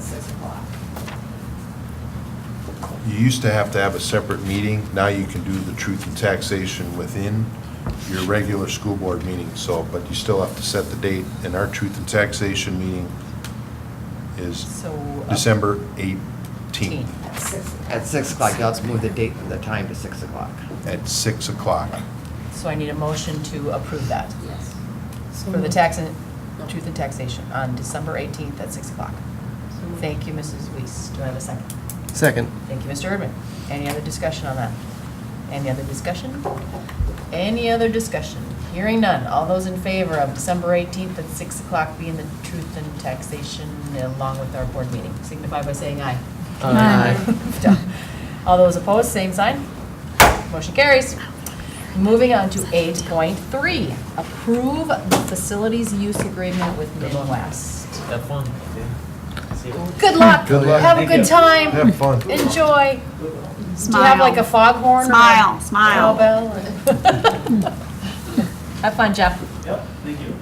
six o'clock. You used to have to have a separate meeting. Now you can do the truth in taxation within your regular school board meeting, so, but you still have to set the date. And our truth in taxation meeting is So. uh, December 18th At six. At 6 o'clock, now let's move the date, the time to 6 o'clock. at 6 o'clock. So I need a motion to approve that Yes. for the tax and, truth and taxation on December 18th at 6 o'clock. Thank you, Mrs. Weiss. Do I have a second? Second. Thank you, Mr. Erdman. Any other discussion on that? Any other discussion? Any other discussion? Hearing none. All those in favor of December 18th at 6 o'clock being the truth and taxation along with our board meeting, signify by saying aye. Aye. Done. All those opposed, same sign. Motion carries. Moving on to eight point three, approve the facilities use agreement with Midwest. Have fun. See you. Good luck. Good luck. Have a good time. Have fun. Enjoy. Do you Smile. have like a foghorn? or a Smile, smile. Cowbell? Have fun, Jeff. Yep, thank you.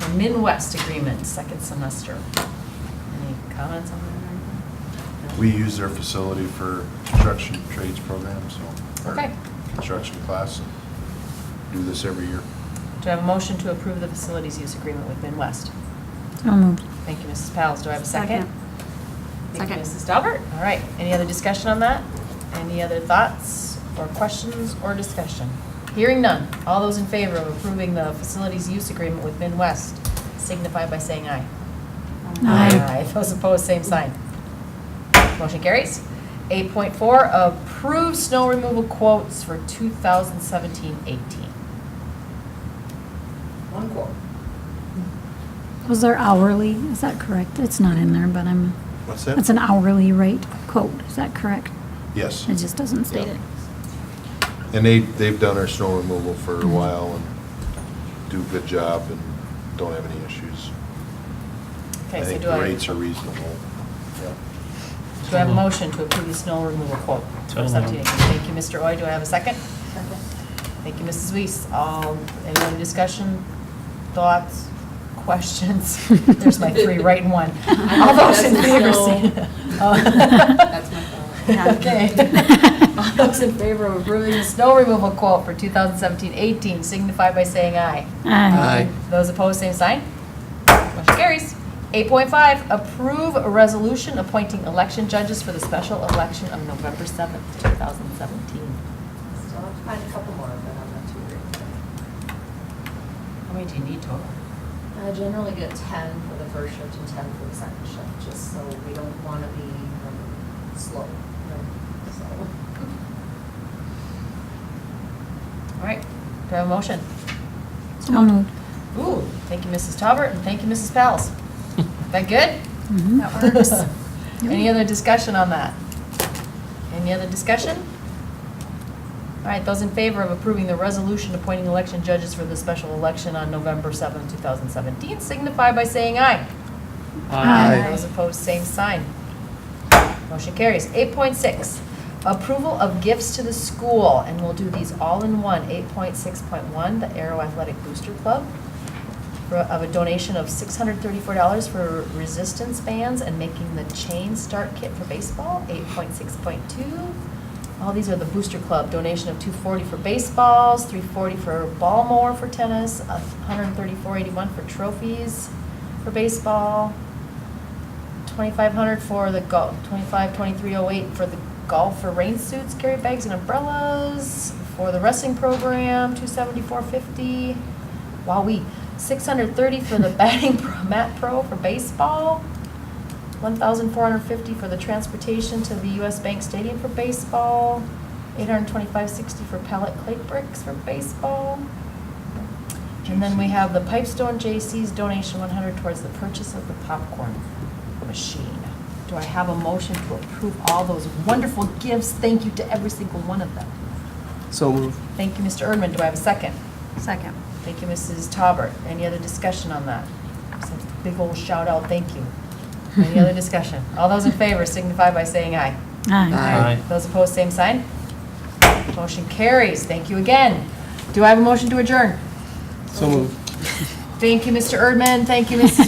So Midwest agreement, second semester. Any comments on that? No? We use their facility for construction trades programs, so. or Okay. Construction class. Do this every year. Do I have a motion to approve the facilities use agreement with Midwest? So moved. Thank you, Mrs. Pals. Do I have a second? Second. Thank you, Second. Mrs. Dalbert. All right. Any other discussion on that? Any other thoughts or questions or discussion? Hearing none. All those in favor of approving the facilities use agreement with Midwest signify by saying aye. Aye. Those opposed, same sign. Motion carries. 8.4, approve snow removal quotes for 2017-18. One quote. Was there hourly? Is that correct? It's not in there, but I'm, What's that? it's an hourly rate quote. Is that correct? Yes. It just doesn't state it. And they, they've done our snow removal for Mm-hmm. a while and do a good job and don't have any issues. Okay, so think do the I, rates do are reasonable. I have a motion to approve the snow removal quote? So for moved. 17? Thank you, Mr. Oy. Do I have a second? Thank you, Mrs. Weiss. All, any other discussion, thoughts, questions? There's my three right in one. All those in favor, say. That's my Yeah. Okay. All those in favor of approving the snow removal quote for 2017-18 signify by saying aye. Aye. Those opposed, same sign. Motion carries. 8.5, approve a resolution appointing election judges for the special election of November 7th, 2017. Still have to find a couple more, but I'm not too worried. about How many do you need total? it. I Uh, generally get ten for the first shift and ten for the second shift, just so we don't want to be um, slow. you know, So, All right, do I have a motion? So moved. Ooh, thank you, Mrs. Talbert, and thank you, Mrs. Pals. That good? Mhm. That works. Any other discussion on that? Any other discussion? All right, those in favor of approving the resolution appointing election judges for the special election on November 7, 2017, signify by saying aye. Aye. Those opposed, same sign. Motion carries. 8.6, approval of gifts to the school, and we'll do these all in one. 8.6.1, the Aero Athletic Booster Club, for- of a donation of $634 for resistance bands and making the chain start kit for baseball. 8.6.2, all these are the Booster Club, donation of 240 for baseballs, 340 for ball mower for tennis, 134.81 for trophies for baseball, 2,500 for the golf, 25, 2308 for the golf for rain suits, carry bags and umbrellas, for the wrestling program, 274.50. Wowee, 630 for the batting pro, mat pro for baseball, 1,450 for the transportation to the US Bank Stadium for baseball, 825.60 for pallet clay bricks for baseball. And then we have the Pipestone J.C.'s donation 100 towards the purchase of the popcorn machine. Do I have a motion to approve all those wonderful gifts? Thank you to every single one of them. So moved. Thank you, Mr. Erdman. Do I have a second? Second. Thank you, Mrs. Taubert. Any other discussion on that? It's a Big old shout out, thank you. Any other discussion? All those in favor signify by saying aye. Aye. Aye. Those opposed, same sign. Motion carries. Thank you again. Do I have a motion to adjourn? So moved. Thank you, Mr. Erdman. Thank you, Mrs.